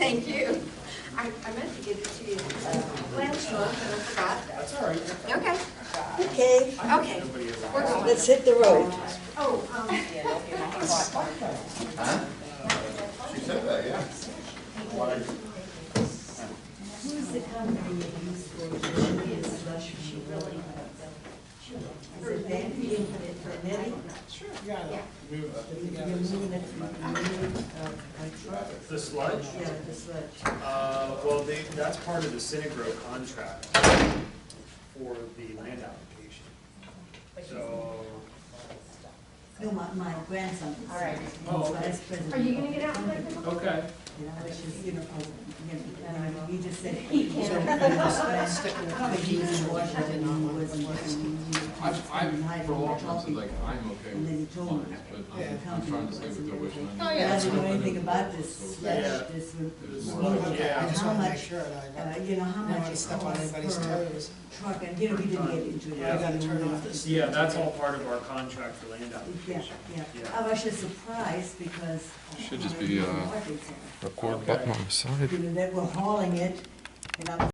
sorry. Okay, Okay, okay. We're going. let's hit the road. Oh, um, She said that, yeah. Who's the company that used for, she is, she really. Is it that being for Nettie? You mean it from the name of my truck? The sludge, Yeah, the sludge. uh, well, they, that's part of the Synagro contract for the land application. So, No, my, my grandson. All right. Oh, okay. president. Are you gonna get out and play pickleball? okay. And I was just, you know, I was, you know, he just said he can't. But he was in Washington, and he wasn't, he was I've, I've, for a long time, said like, I'm okay And then he with told me. fines, but I'm- I'm trying to stay with the wish. and- Oh, yeah. Doesn't know anything about this, Yeah. yes, this would. There's more. And Yeah. I just how want to much, make sure that I uh, don't, you know, how I much don't want to it step on anybody's costs per toes. truck, and, you know, we didn't get into it. Yeah. I gotta turn off this. Yeah, that's all part of our contract for land Yeah, application. yeah, Yeah. I was just surprised because. uh, Should just be, uh, Washington, Record button on the side. You know, that we're hauling it, and I'm